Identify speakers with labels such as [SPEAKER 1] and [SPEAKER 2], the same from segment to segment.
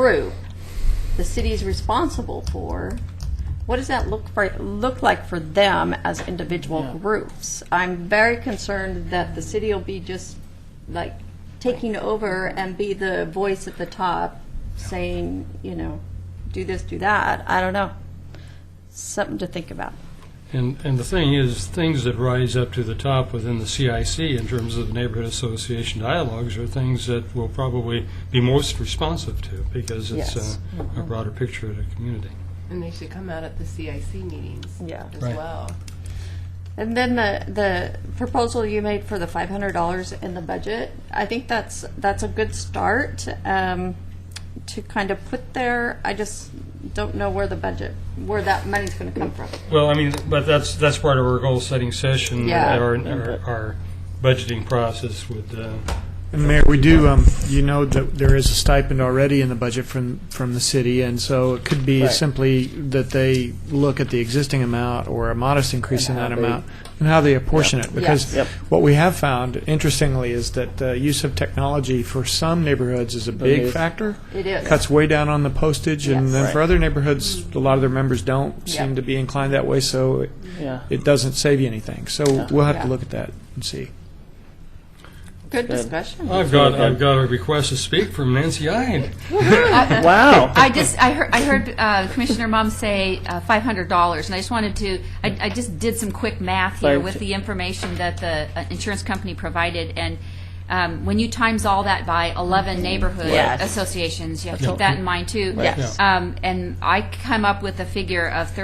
[SPEAKER 1] group the city's responsible for, what does that look for, look like for them as individual
[SPEAKER 2] Yeah.
[SPEAKER 1] groups? I'm very concerned that the city will be just like taking over and be the voice at the top saying, you know, do this, do that. I don't know. Something to think about.
[SPEAKER 3] And, and the thing is, things that rise up to the top within the CIC in terms of the neighborhood association dialogues are things that we'll probably be most responsive to because it's uh,
[SPEAKER 1] Yes. Mm-hmm.
[SPEAKER 3] a, a broader picture of the community.
[SPEAKER 4] And they should come out at the CIC meetings
[SPEAKER 1] Yeah.
[SPEAKER 4] as
[SPEAKER 3] Right.
[SPEAKER 4] well.
[SPEAKER 1] And then the, the proposal you made for the five hundred dollars in the budget, I think that's, that's a good start, um, to kind of put there. I just don't know where the budget, where that money's gonna come from.
[SPEAKER 3] Well, I mean, but that's, that's part of our goal-setting session,
[SPEAKER 1] Yeah.
[SPEAKER 3] our, our- our budgeting process with, uh,
[SPEAKER 2] And Mayor, we do, um, you know that there is a stipend already in the budget from, from the city, and so it could be
[SPEAKER 5] Right.
[SPEAKER 2] simply that they look at the existing amount or a modest increase in
[SPEAKER 5] And how
[SPEAKER 2] that
[SPEAKER 5] they-
[SPEAKER 2] amount, and how they apportion it. Because
[SPEAKER 5] Yep.
[SPEAKER 2] what we have found, interestingly, is that the use of technology for some neighborhoods is a big
[SPEAKER 5] is.
[SPEAKER 2] factor.
[SPEAKER 1] It is.
[SPEAKER 2] Cuts way down on the postage, and
[SPEAKER 1] Yes.
[SPEAKER 2] then for
[SPEAKER 5] Right.
[SPEAKER 2] other neighborhoods, a lot of their members don't
[SPEAKER 1] Yeah.
[SPEAKER 2] seem to be inclined that way, so it-
[SPEAKER 5] Yeah.
[SPEAKER 2] it doesn't save you anything. So
[SPEAKER 5] Yeah.
[SPEAKER 2] we'll have
[SPEAKER 1] Yeah.
[SPEAKER 2] to look at that and see.
[SPEAKER 1] Good
[SPEAKER 5] good.
[SPEAKER 1] discussion.
[SPEAKER 3] I've got, I've got a request to speak from Nancy Ide.
[SPEAKER 5] Wow.
[SPEAKER 6] I just, I heard, I heard uh, Commissioner Mum say uh, $500, and I just wanted to, I, I just did some quick math here
[SPEAKER 5] Thank
[SPEAKER 6] with
[SPEAKER 5] you.
[SPEAKER 6] the information that the uh, insurance company provided, and um, when you times all that by 11 neighborhood
[SPEAKER 1] Yes.
[SPEAKER 6] associations, you have to keep that in mind, too.
[SPEAKER 1] Yes.
[SPEAKER 6] Um, And I come up with a figure of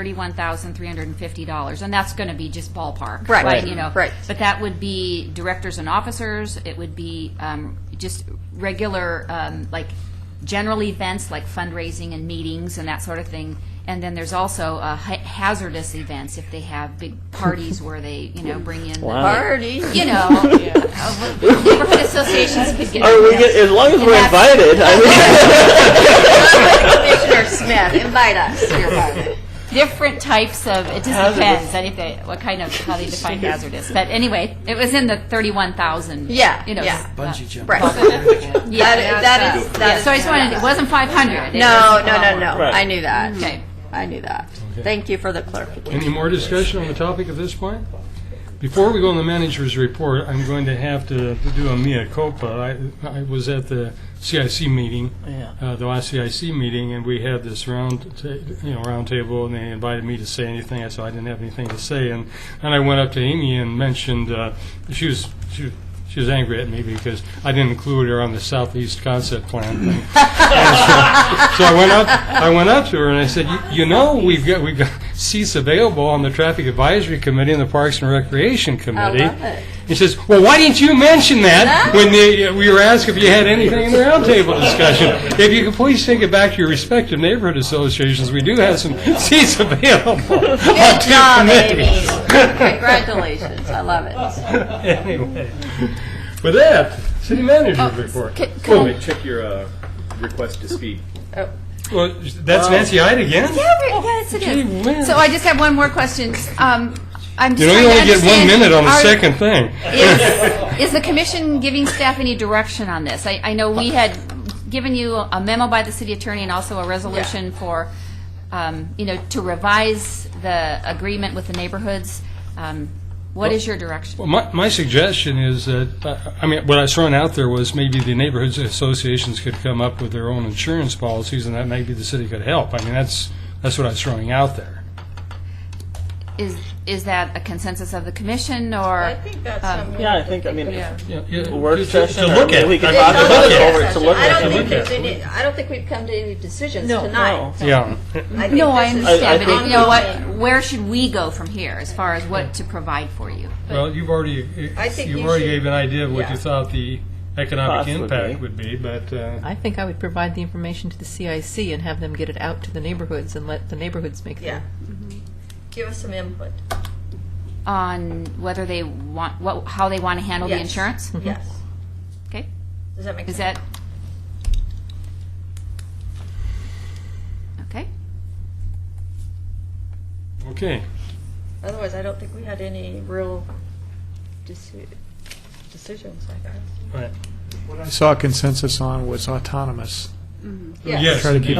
[SPEAKER 6] $31,350, and that's going to be just ballpark.
[SPEAKER 1] Right.
[SPEAKER 6] You know.
[SPEAKER 1] Right.
[SPEAKER 6] But that would be directors and officers, it would be um, just regular, um, like, general events like fundraising and meetings and that sort of thing. And then there's also uh, ha- hazardous events if they have big parties where they, you know, bring in, the-
[SPEAKER 1] Party.
[SPEAKER 6] you know, uh, well, neighborhood associations could get.
[SPEAKER 5] Are we get, as long as we're
[SPEAKER 6] that's-
[SPEAKER 5] invited, I mean,
[SPEAKER 1] Commissioner Smith, invite us to your party.
[SPEAKER 6] different types of, it just depends, I think they, what kind of, how they define hazardous. But anyway, it was in the thirty-one thousand.
[SPEAKER 1] Yeah,
[SPEAKER 6] You know.
[SPEAKER 1] yeah.
[SPEAKER 6] s-
[SPEAKER 5] Bungee jumping.
[SPEAKER 1] Right.
[SPEAKER 6] Yeah.
[SPEAKER 1] That is- that is- that
[SPEAKER 6] Yeah,
[SPEAKER 1] is-
[SPEAKER 6] So I just wanted, it wasn't five hundred.
[SPEAKER 1] No, no, no, no.
[SPEAKER 5] Right.
[SPEAKER 1] I knew that.
[SPEAKER 6] Okay.
[SPEAKER 1] I knew that. Thank you for the clarification.
[SPEAKER 3] Any more discussion on the topic at this point? Before we go on the manager's report, I'm going to have to to do a mea culpa. I, I was at the CIC meeting,
[SPEAKER 5] Yeah.
[SPEAKER 3] uh, the last CIC meeting, and we had this round, ta- you know, round table, and they invited me to say anything. I said I didn't have anything to say, and, and I went up to Amy and mentioned, uh, she was, she was- she was angry at me because I didn't include her on the southeast concept plan thing. So I went up, I went up to her and I said, "You- you know, we've got, we've got seats available on the Traffic Advisory Committee and the Parks and Recreation Committee.
[SPEAKER 1] love it.
[SPEAKER 3] He says, Oh, well, why didn't you mention that when they, uh, we were asked if you had anything in the roundtable discussion? If you could please take it back to your respective neighborhood associations, we do have some seats available on
[SPEAKER 1] Good
[SPEAKER 3] two
[SPEAKER 1] job, Amy.
[SPEAKER 3] committees.
[SPEAKER 1] Congratulations. I love it.
[SPEAKER 3] Anyway, with that, city manager's report. Oh, wait.
[SPEAKER 7] Check your uh, request to speak.
[SPEAKER 3] Oh.
[SPEAKER 7] Um,
[SPEAKER 3] Well, that's Nancy Ide again?
[SPEAKER 6] Yes, it is. So I just have one more question. Um, I'm
[SPEAKER 3] You
[SPEAKER 6] just
[SPEAKER 3] know,
[SPEAKER 6] trying
[SPEAKER 3] you
[SPEAKER 6] to
[SPEAKER 3] only get one
[SPEAKER 6] understand,
[SPEAKER 3] minute on the
[SPEAKER 6] are-
[SPEAKER 3] second thing.
[SPEAKER 6] Is, is the commission giving staff any direction on this? I, I know we had given you a memo by the city attorney and also a resolution for, um, you know, to revise the agreement with the neighborhoods. Um, What is your direction?
[SPEAKER 3] Well, my, my suggestion is that, uh, I mean, what I was throwing out there was maybe the neighborhoods associations could come up with their own insurance policies, and that maybe the city could help. I mean, that's, that's what I was throwing out there.
[SPEAKER 6] Is, is that a consensus of the commission or?
[SPEAKER 5] yeah, I think, I mean, work
[SPEAKER 3] Work
[SPEAKER 5] session.
[SPEAKER 3] To
[SPEAKER 5] or
[SPEAKER 3] look at.
[SPEAKER 5] We could
[SPEAKER 3] it.
[SPEAKER 5] talk
[SPEAKER 3] To
[SPEAKER 5] about
[SPEAKER 3] look
[SPEAKER 5] it
[SPEAKER 3] at.
[SPEAKER 5] over to look
[SPEAKER 1] I
[SPEAKER 5] at.
[SPEAKER 1] don't
[SPEAKER 5] it.
[SPEAKER 1] think there's any, I don't think we've come to any decisions tonight.
[SPEAKER 3] Yeah.
[SPEAKER 1] I think
[SPEAKER 6] No, I
[SPEAKER 1] this is-
[SPEAKER 6] understand,
[SPEAKER 5] I- I
[SPEAKER 6] but
[SPEAKER 5] think-
[SPEAKER 6] you know what, where should we go from here as far as what to provide for you?
[SPEAKER 3] Well, you've already,
[SPEAKER 1] I think
[SPEAKER 3] you
[SPEAKER 1] you
[SPEAKER 3] already
[SPEAKER 1] should-
[SPEAKER 3] gave an idea of what
[SPEAKER 1] yeah.
[SPEAKER 3] you thought the economic
[SPEAKER 5] Cost would
[SPEAKER 3] impact
[SPEAKER 5] be.
[SPEAKER 3] would be, but, uh,
[SPEAKER 8] I think I would provide the information to the CIC and have them get it out to the neighborhoods and let the neighborhoods make
[SPEAKER 1] Yeah.
[SPEAKER 8] their
[SPEAKER 6] Mm-hmm.
[SPEAKER 1] Give us some input.
[SPEAKER 6] On whether they want, what, how they want to handle the
[SPEAKER 1] Yes.
[SPEAKER 6] insurance?
[SPEAKER 1] Yes.
[SPEAKER 6] Okay,
[SPEAKER 1] Does that make
[SPEAKER 6] is
[SPEAKER 1] sense?
[SPEAKER 6] that? Okay,
[SPEAKER 3] okay.
[SPEAKER 1] Otherwise, I don't think we had any real deci- decisions like that.
[SPEAKER 3] All right.
[SPEAKER 2] What I saw consensus on was autonomous
[SPEAKER 9] Yes.
[SPEAKER 3] Try to keep